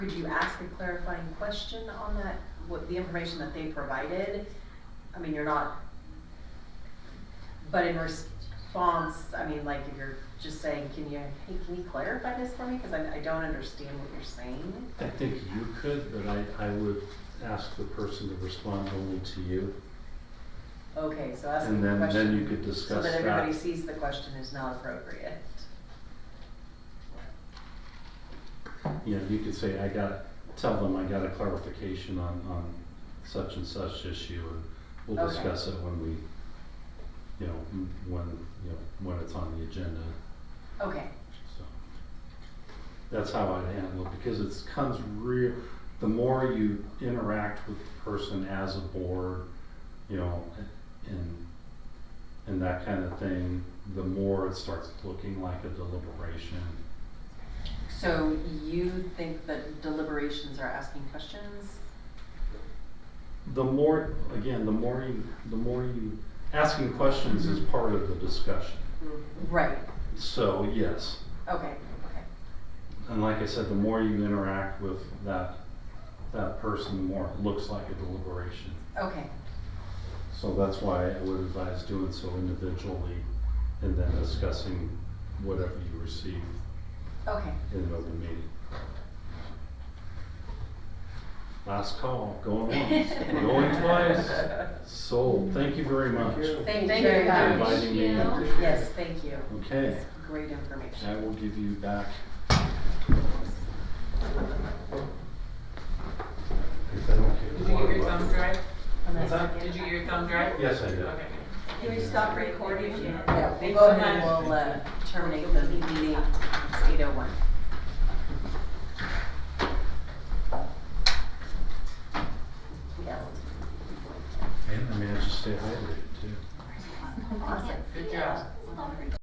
Could you ask a clarifying question on that, what, the information that they provided? I mean, you're not, but in response, I mean, like, if you're just saying, can you, hey, can you clarify this for me? Cause I, I don't understand what you're saying. I think you could, but I, I would ask the person to respond only to you. Okay, so asking And the then- then question. you could So discuss that everybody that. sees the question is not appropriate. You know, you could say, I got, tell them I got a clarification on, on such and such issue, and we'll Okay. discuss it when we, you know, m- when, you know, when it's on the agenda, Okay, so. That's how I'd handle it, because it's comes real, the more you interact with the person as a board, you know, and, and that kind of thing, the more it starts looking like a deliberation. so you think that deliberations are asking questions? The more, again, the more you, the more you, asking questions is part of the discussion. Right, So, yes, okay, okay. and like I said, the more you interact with that, that person, the more it looks like a deliberation. Okay, So that's why I would advise doing so individually and then discussing whatever you receive okay. in an open meeting. Last call, going once, going twice, sold. Thank you very much. Thank you Thank very you. much. Inviting me in. Thank Yes, thank you. Okay, That's Great information. I will give you back. If I don't get Did you get your thumb drive? And that's- Did you get your thumb drive? Yes, I did. Okay. Can we stop recording? Yeah, we'll Thanks go so ahead and much. we'll uh, terminate the meeting. It's eight oh one. And I managed to stay hydrated too. Good job.